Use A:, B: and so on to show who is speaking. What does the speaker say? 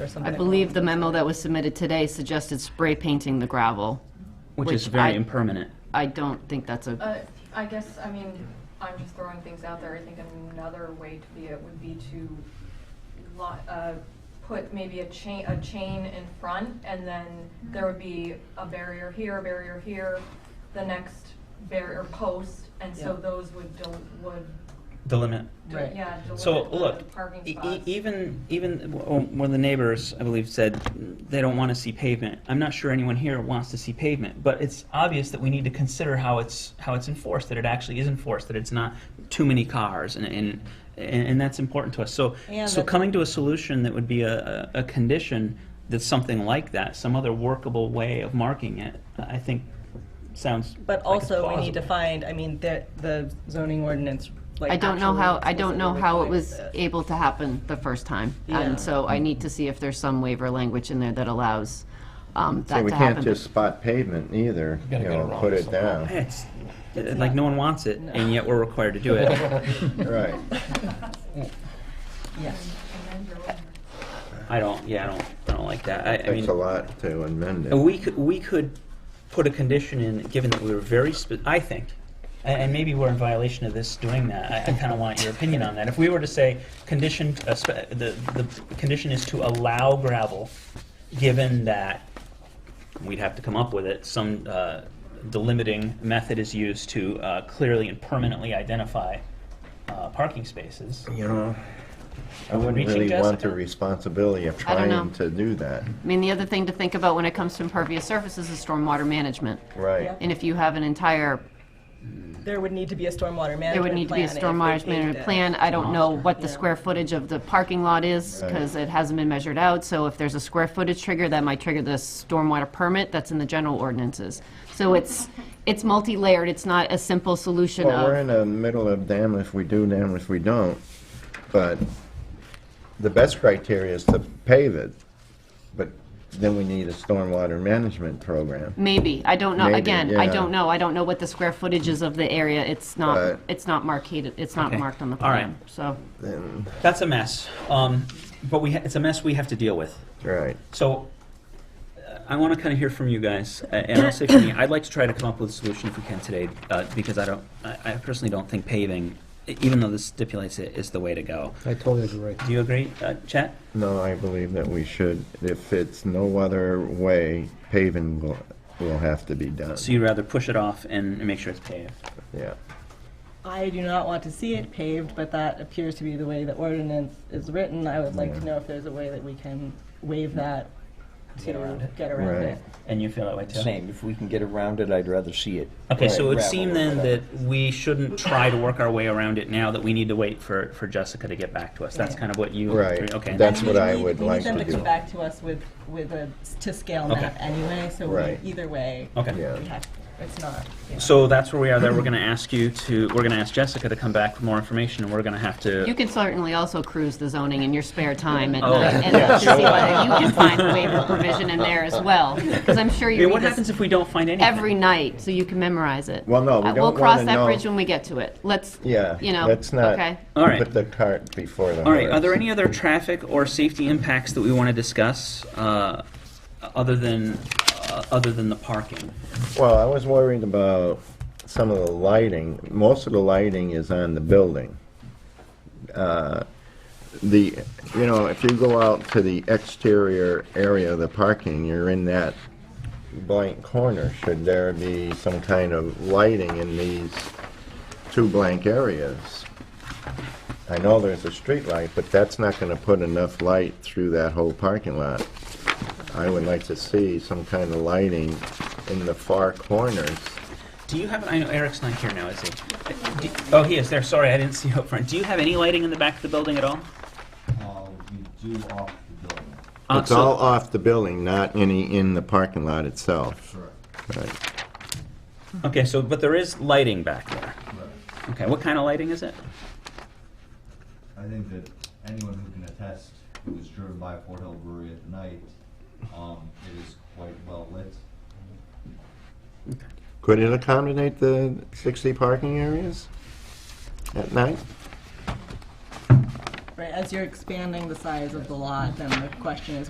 A: or
B: I
A: something.
B: believe the memo that was submitted today suggested spray painting the gravel.
C: Which is
B: Which
C: very
B: I-
C: impermanent.
B: I don't think that's a,
D: Uh, I guess, I mean, I'm just throwing things out there. I think another way to be it would be to lo- uh, put maybe a chain, a chain in front and then there would be a barrier here, a barrier here, the next barrier post, and so
A: Yeah.
D: those would, del- would,
C: The limit.
D: de-
A: Right.
D: yeah,
C: So,
D: deliver the
C: look,
D: parking
C: e-
D: spots.
C: e- even, even w- one of the neighbors, I believe, said they don't want to see pavement. I'm not sure anyone here wants to see pavement, but it's obvious that we need to consider how it's, how it's enforced, that it actually is enforced, that it's not too many cars, and, and, and and that's important to us. So,
A: And
C: so
A: that-
C: coming to a solution that would be a, a a condition that's something like that, some other workable way of marking it, I think sounds like
A: But
C: it's
A: also, we need to
C: plausible.
A: find, I mean, the, the zoning ordinance, like.
B: I don't know how, I don't know
A: actually
B: how it
A: requires
B: was
A: that.
B: able to happen the first time.
A: Yeah.
B: And so I need to see if there's some waiver language in there that allows um,
E: So
B: that
E: we
B: to
E: can't
B: happen.
E: just spot pavement either, you
F: gotta get
E: know,
F: around
E: put
F: this
E: it
F: somehow.
E: down,
C: It's, like, no one wants it, and yet we're required to do it.
E: right.
A: Yeah.
D: And then you're-
C: I don't, yeah, I don't, I don't like that. I, I
E: Takes a
C: mean,
E: lot to amend it.
C: we could, we could put a condition in, given that we were very spe- I think, a- and maybe we're in violation of this doing that. I, I kind of want your opinion on that. If we were to say, condition, uh, spe- the, the condition is to allow gravel, given that, we'd have to come up with it, some, uh, delimiting method is used to, uh, clearly and permanently identify, uh, parking spaces.
E: You know, I
C: Are we
E: wouldn't
C: reaching,
E: really want
C: Jessica?
E: the responsibility of
B: I don't
E: trying
B: know.
E: to do that,
B: I mean, the other thing to think about when it comes to impervious surfaces is stormwater management.
E: right.
A: Yeah.
B: And if you have an entire
A: There would need to be a stormwater management plan.
B: There would need to be a
A: if we
B: storm
A: paved
B: management
A: it.
B: plan. I don't know what the
A: Yeah.
B: square footage of the parking lot is,
E: Right.
B: because it hasn't been measured out. So if there's a square footage trigger, that might trigger the stormwater permit that's in the general ordinances. So it's, it's multi-layered. It's not a simple solution
E: Well, we're
B: of,
E: in the middle of damn if we do, damn if we don't, but the best criteria is to pave it, but then we need a stormwater management program.
B: maybe, I don't know.
E: Maybe,
B: Again, I
E: yeah.
B: don't know. I don't know what the square footage is of the area. It's
E: Right.
B: not, it's not marked, it's not
C: Okay.
B: marked on the
C: All right.
B: plan, so.
E: Then,
C: That's a mess, um, but we, ha- it's a mess we have to deal with.
E: right.
C: So, uh, I want to kind of hear from you guys, a- and I'll say for me, I'd like to try to come up with a solution if we can today, uh, because I don't, I I personally don't think paving, e- even though this stipulates it, is the way to go.
F: I totally agree.
C: Do you agree, uh, Chet?
E: No, I believe that we should, if it's no other way, paving will, will have to be done,
C: So you'd rather push it off and make sure it's paved?
E: yeah.
A: I do not want to see it paved, but that appears to be the way the ordinance is written. I would like to
E: Yeah.
A: know if there's a way that we can waive that
C: Get around
A: to
C: it.
A: get around
E: Right.
A: it.
C: And you feel that way too?
F: Same, if we can get around it, I'd rather see it.
C: Okay, so it would
F: Gravel
C: seem
F: or
C: then
F: whatever.
C: that we shouldn't try to work our way around it now, that we need to wait for, for Jessica to get back to us. That's
A: Yeah.
C: kind of what you.
E: Right.
C: Okay.
E: That's
A: And we
E: what I
A: need-
E: would
A: We need
E: like to
A: them to come
E: do.
A: back to us with, with a, s- to scale
C: Okay.
A: map anyway, so
E: Right.
A: we- either way,
C: Okay.
E: Yeah.
A: we have, it's not, yeah.
C: So that's where we are there. We're going to ask you to, we're going to ask Jessica to come back for more information, and we're going to have
B: You
C: to.
B: can certainly also cruise the zoning in your spare time at
C: Oh.
B: night and to see whether you can find a waiver provision in there as well. Because I'm sure
C: I mean,
B: you
C: what
B: read this
C: happens if we don't find anything?
B: every night, so you can memorize it.
E: Well, no, we
B: Uh,
E: don't
B: We'll cross
E: wanna
B: that
E: know-
B: bridge when we get to it. Let's,
E: Yeah,
B: you know,
E: let's not
B: okay.
C: All right.
E: put the cart before the horse.
C: All right, are there any other traffic or safety impacts that we want to discuss, uh, other than, uh, other than the parking?
E: Well, I was worried about some of the lighting. Most of the lighting is on the building. Uh, The, you know, if you go out to the exterior area of the parking, you're in that blank corner. Should there be some kind of lighting in these two blank areas? I know there's a street light, but that's not going to put enough light through that whole parking lot. I would like to see some kind of lighting in the far corners.
C: Do you have, I know Eric's not here now, is he? Uh, do- Oh, he is there, sorry, I didn't see you up front. Do you have any lighting in the back of the building at all?
G: Uh, you do off the building.
C: Uh,
E: It's
C: so-
E: all off the building, not any in the parking lot itself.
G: Correct.
E: Right.
C: Okay, so, but there is lighting back there.
G: Right.
C: Okay, what kind of lighting is it?
G: I think that anyone who can attest who has driven by Fort Hill Brewery at night, um, it is quite well lit.
E: Could it accommodate the 60 parking areas at night?
A: Right, as you're expanding the size of the lot, then the question is